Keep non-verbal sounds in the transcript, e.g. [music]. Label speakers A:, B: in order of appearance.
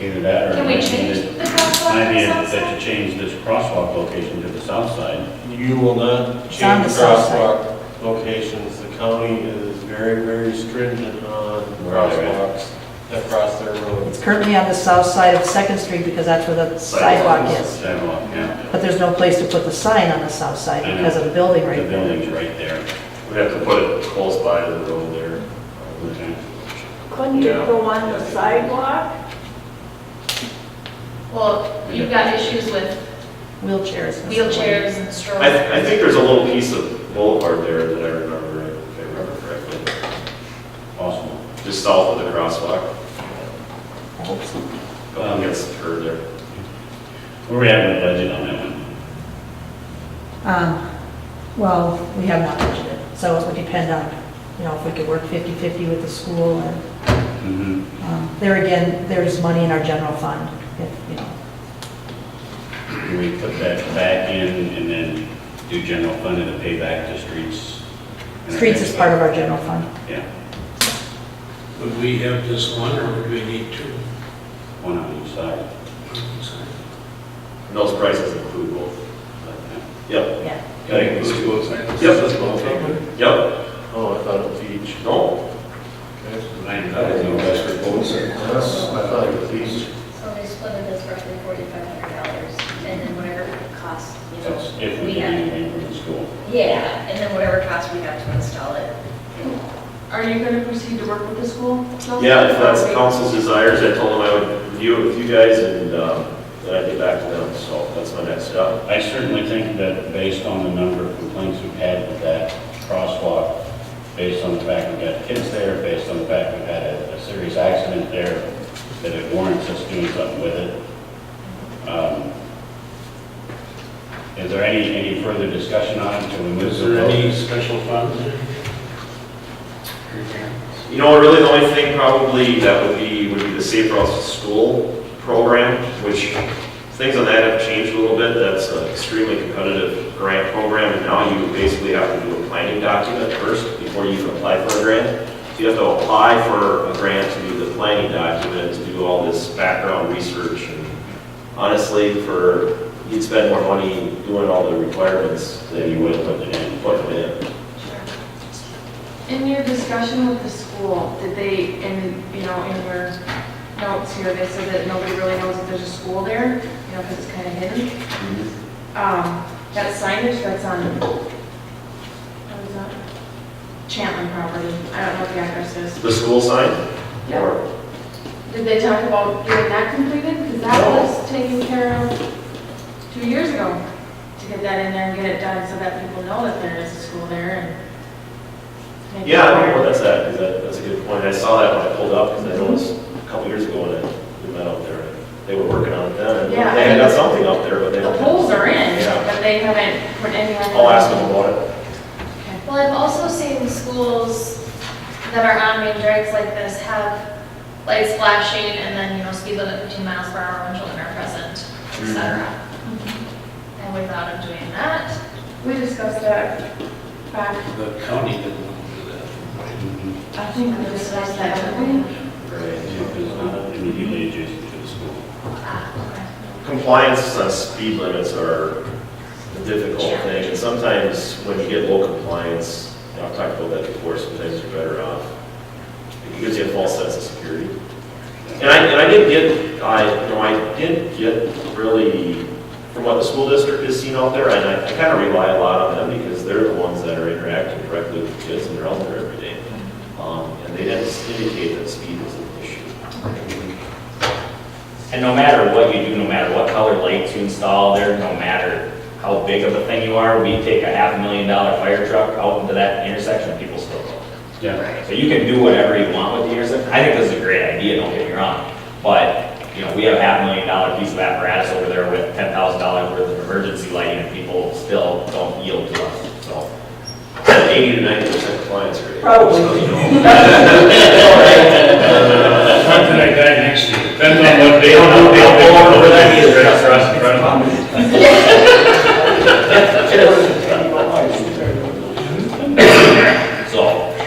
A: Either that or.
B: Can we
A: maybe
B: change
A: that-
B: the crosswalk
A: Maybe
B: to
A: it- that
B: Southside?
A: you change this crosswalk location to the south side.
C: You will not
D: It's on
C: change
D: the south side.
C: crosswalk locations. The county is very, very stringent on
A: Where they're
C: crosswalks across their roads.
D: It's currently on the south side of Second Street because that's where the sidewalk is.
A: Sidewalk, yeah.
D: But there's no place to put the sign on the south side because of the building
A: The
D: right there.
A: building's right there.
E: We'd have to put it close by the road there.
A: Okay.
F: Couldn't it go on the sidewalk?
B: Well, you've got issues with
D: Wheelchairs. and stuff.
B: wheelchairs and
E: I,
B: strollers.
E: th- I think there's a little piece of boulevard there that I remember, if I remember correctly,
A: Possible.
E: just south of the crosswalk,
D: I hope so.
A: Um,
E: going against the curb there.
A: Where we at with budget on that one?
D: Um, Well, we have not budgeted, so it would depend on, you know, if we could work 50/50 with the school and
A: Mm-hmm.
D: um, there again, there's money in our general fund, if, you know.
A: Can we put that back in and then do general fund and then pay back to streets?
D: Streets is part of our general fund.
A: Yeah,
G: Would we have just one, or would we need two?
A: one on each side.
E: And those prices include both. Yep,
D: Yeah.
E: Yeah, it includes both.
G: Yep.
E: Yep. Yep.
C: Oh, I thought it was each.
E: No,
C: I thought it was each.
H: So they split it as roughly forty-five hundred dollars, and then whatever cost, you
A: That's
H: know.
A: if we get
H: have-
A: anything from the school.
H: Yeah, and then whatever cost we have to install it.
B: Are you going to proceed to work with the school? Chelsea?
E: yeah, if that's council's desires, I told them I would review it with you guys and, um, then I'd get back to them, so that's my next step.
A: I certainly think that based on the number of complaints we've had with that crosswalk, based on the fact we've got kids there, based on the fact we've had a, a serious accident there, that it warrants us doing something with it. Um, Is there any, any further discussion on it until we move
G: Is
A: to the
G: there any
A: vote?
G: special funds?
E: You know, really the only thing probably that would be, would be the Safe Routes to School program, which things on that have changed a little bit. That's an extremely competitive grant program, and now you basically have to do a planning document first before you can apply for a grant. So you have to apply for a grant to do the planning document, to do all this background research. and Honestly, for, you'd spend more money doing all the requirements than you would putting it in, putting it in.
B: In your discussion with the school, did they, in, you know, in your notes here, they said that nobody really knows that there's a school there, you know, because it's kind of hidden.
E: Mm-hmm.
B: Um, that signage that's on, what is that? Chantlin property, I don't know what the address is.
E: The school sign?
B: Yeah.
E: Or-
B: Did they talk about getting that completed? Because that
E: No.
B: was taken care of two years ago, to get that in there and get it done so that people know that there is a school there and. make it
E: Yeah, I don't know
B: aware.
E: where that's at, 'cause that, that's a good point. I saw that when I pulled up, because I noticed a couple years ago when I we met out there, they were working on it then. and
B: Yeah, I
E: They had got
B: think-
E: something up there, but they
B: The
E: don't.
B: poles are in,
E: Yeah.
B: but they haven't put any on.
E: I'll ask them about it.
H: Well, I've also seen schools that are on main drags like this have lights flashing and then, you know, speed limit 15 miles per hour when children are present, et cetera. And we thought of doing that.
B: We discussed that back,
G: The county didn't want to do that.
B: I think we discussed that, didn't we?
A: If it's not immediately adjacent to the school.
E: Compliance on speed limits are a difficult thing, and sometimes when you get low compliance, and I've talked about that before, sometimes you're better off. It gives you a false sense of security. And I, and I did get, I, you know, I did get really, from what the school district has seen out there, and I, I kind of rely a lot on them because they're the ones that are interacting directly with the kids and they're out there every day. Um, and they didn't indicate that speed was an issue.
I: And no matter what you do, no matter what color lights you install there, no matter how big of a thing you are, we take a half a million dollar fire truck out into that intersection, people still go.
A: [laughs] Yeah.
I: So you can do whatever you want with the intersection. I think this is a great idea, don't get me wrong. But, you know, we have a half million dollar piece of apparatus over there with ten thousand dollars worth of emergency lighting and people still don't yield to us, so.
E: Eighty to ninety percent compliance rate.
D: Probably.
E: So, you know,
G: Not that I got next to you. Depends on what
I: They
G: day.
I: don't know, they don't know where that is,
G: [laughs] [laughs]